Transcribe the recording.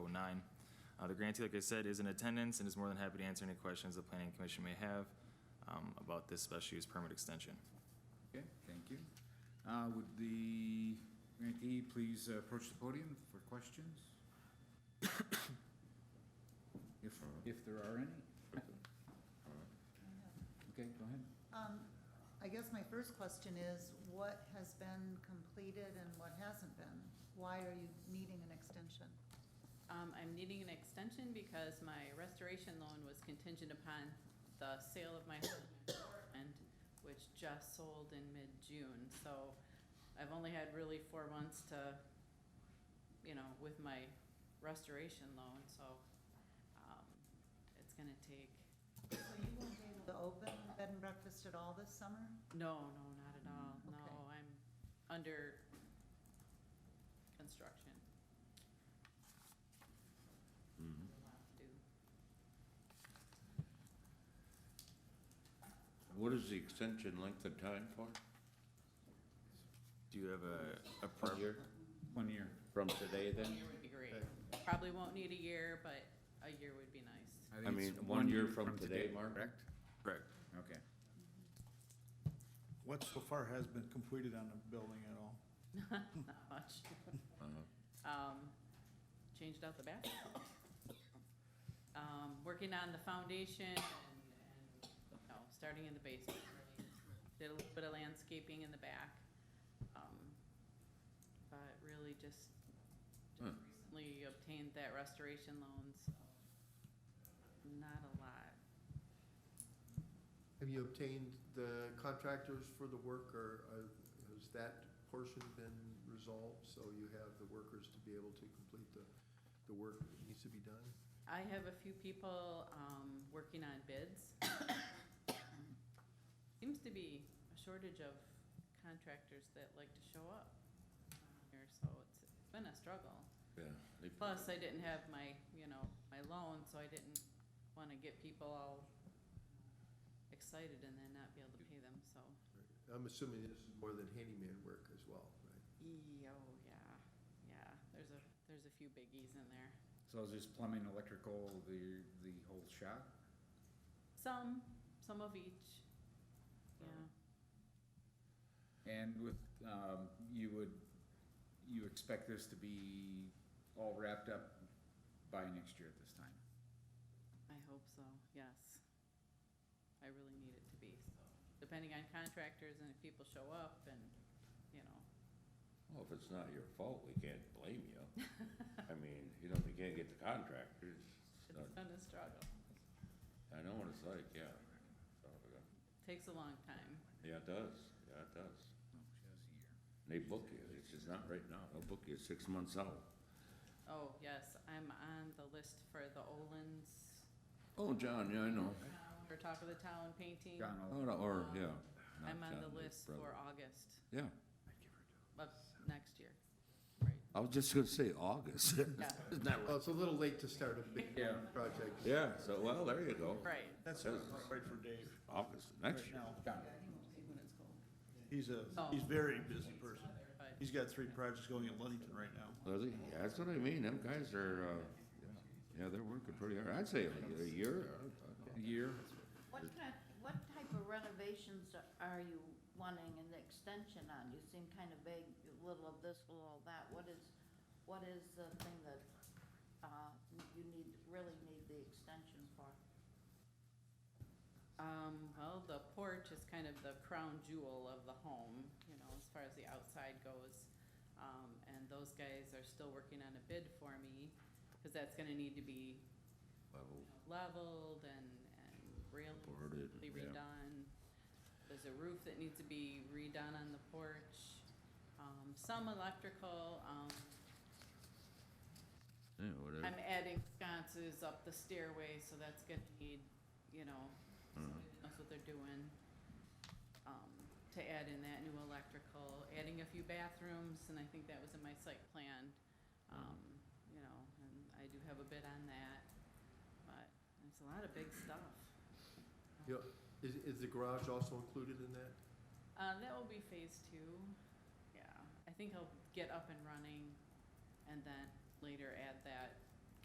nine. Uh, The grantee, like I said, is in attendance and is more than happy to answer any questions the planning commission may have um, about this special use permit extension. Okay, thank you. Uh, Would the grantee please uh, approach the podium for questions? If, if there are any? Okay, go ahead. Um, I guess my first question is, what has been completed and what hasn't been? Why are you needing an extension? Um, I'm needing an extension because my restoration loan was contingent upon the sale of my home in Portland, which just sold in mid-June, so I've only had really four months to, you know, with my restoration loan, so, um, it's gonna take, So you won't be able to open bed and breakfast at all this summer? no, no, not at all, no, Okay. I'm under construction. A lot to do. Mm-hmm. What is the extension length of time for? Do you have a, a preference? One year. From today A then? year would be great. Probably won't need a year, but a year would be nice. think I it's mean, one year from today, Mark? Correct? Correct. Okay. What so far has been completed on the building at all? Not much. Uh-huh, Um, changed out the bathroom. Um, working on the foundation and, and, no, starting in the basement. really. Did a little bit of landscaping in the back. Um, But really just, just Hmm. recently obtained that restoration loan, so not a lot. Have you obtained the contractors for the work, or uh, has that portion been resolved, so you have the workers to be able to complete the, the work that needs to be done? I have a few people, um, working on bids. Seems to be a shortage of contractors that like to show up here, so it's been a struggle. Yeah. they- Plus, I didn't have my, you know, my loan, so I didn't wanna get people all excited and then not be able to pay them, so. I'm assuming this is more than handyman work as well, right? E- Oh, yeah, yeah, there's a, there's a few biggies in there. So is this plumbing, electrical, the, the whole shop? Some, some of each, yeah. And with, um, you would, you expect this to be all wrapped up by next year at this time? I hope so, yes. I really need it to be, so, depending on contractors and if people show up and, you know, Well, if it's not your fault, we can't blame you. I mean, you know, if you can't get the contractors, it's it's not- been a struggle. I know what it's like, yeah. So, yeah. Takes a long time. Yeah, it does, yeah, it does. No, she has a year. They book you, it's just not right now, they'll book you six months out. Oh, yes, I'm on the list for the Olin's, Oh, John, yeah, I know. for Talk of the Town painting. John, I'll- Oh, no, Or, yeah. not I'm on John, the his list for brother. August Yeah, of next year, right, I was just gonna say August. yeah, Isn't that Well, Oh, it's a little late to start a big Yeah. project. Yeah, so, well, there you go. right. That's right for Dave August, next right year. now. John, He's a, Oh. he's a very busy person. But He's got three projects going in Ludington right now. Does he? Yeah, that's what I mean, them guys are, uh, yeah, they're working pretty hard, I'd say a year. a year? What kind, what type of renovations are you wanting an extension on? You seem kind of vague, a little of this, a little of that. What is, what is the thing that, uh, you need, really need the extension for? Um, well, the porch is kind of the crown jewel of the home, you know, as far as the outside goes. Um, and those guys are still working on a bid for me, cause that's gonna need to be Level. leveled and, and railed, Boarded, completely yeah. redone. There's a roof that needs to be redone on the porch, um, some electrical, um, Yeah, whatever. I'm adding sconces up the stairway, so that's gonna need, you know, somebody that knows what they're doing. Um, to add in that new electrical, adding a few bathrooms, and I think that was in my site plan. Um, you know, and I do have a bid on that, but it's a lot of big stuff. Yeah. Is, is the garage also included in that? Uh, that will be phase two, yeah, I think I'll get up and running, and then later add that